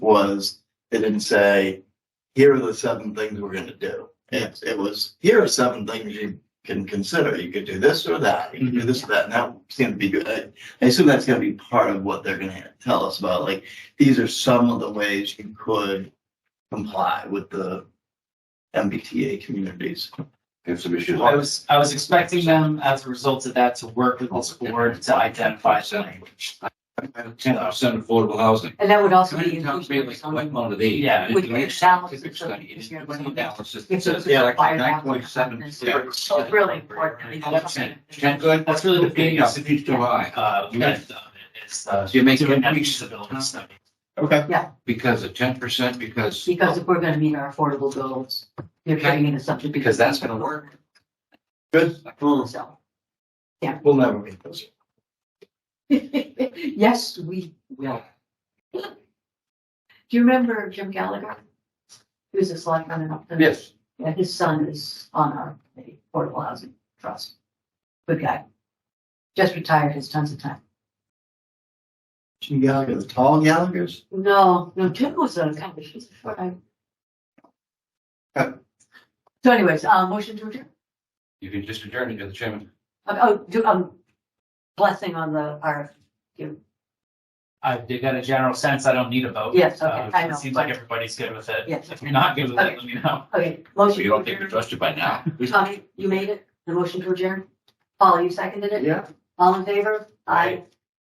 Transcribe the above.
was it didn't say, here are the seven things we're going to do. It, it was, here are seven things you can consider. You could do this or that. You could do this or that. And that seemed to be good. I, I assume that's going to be part of what they're going to tell us about. Like, these are some of the ways you could comply with the MBTA communities. Have some issues. I was, I was expecting them as a result of that to work with this board to identify the language. Ten percent affordable housing. And that would also How be. many times we have like one of these? Yeah. And Would it's be balanced specific so that study. you It's can- one analysis. It's It's a like fire nine point seven balance. zero. It's really important. That's it. Ten good. That's really the Okay, biggest, it's too high uh, length of it is, uh, You make doing it- that feasibility study. Okay. because of ten percent because. Because if we're gonna meet our affordable goals, you're bringing in a subject. Because that's gonna work. Good. So, We'll never meet those. yes, we will. Do you remember Jim Gallagher? He was a selectman in Upton. Yes. Yeah, his son is on our committee, Affordable Housing Trust. Good guy. Just retired, has tons of time. Jim Gallagher, the tall Gallagher's. No, no, Jim was on campus. He's a friend. Okay. So anyways, uh, motion to adjourn. You can just adjourn it to the chairman. Uh, Oh, do, um, blessing on the, our, I did get a general sense, I don't need a vote. Yes, okay, Uh, I know. It seems like everybody's good with it. Yes. If you're not good with Okay. it, let me know. okay, So motion you to don't think we adjourn. trust you by now. Tommy, you made it, the motion to adjourn. Paul, you seconded it? Yeah. All in favor? Aye.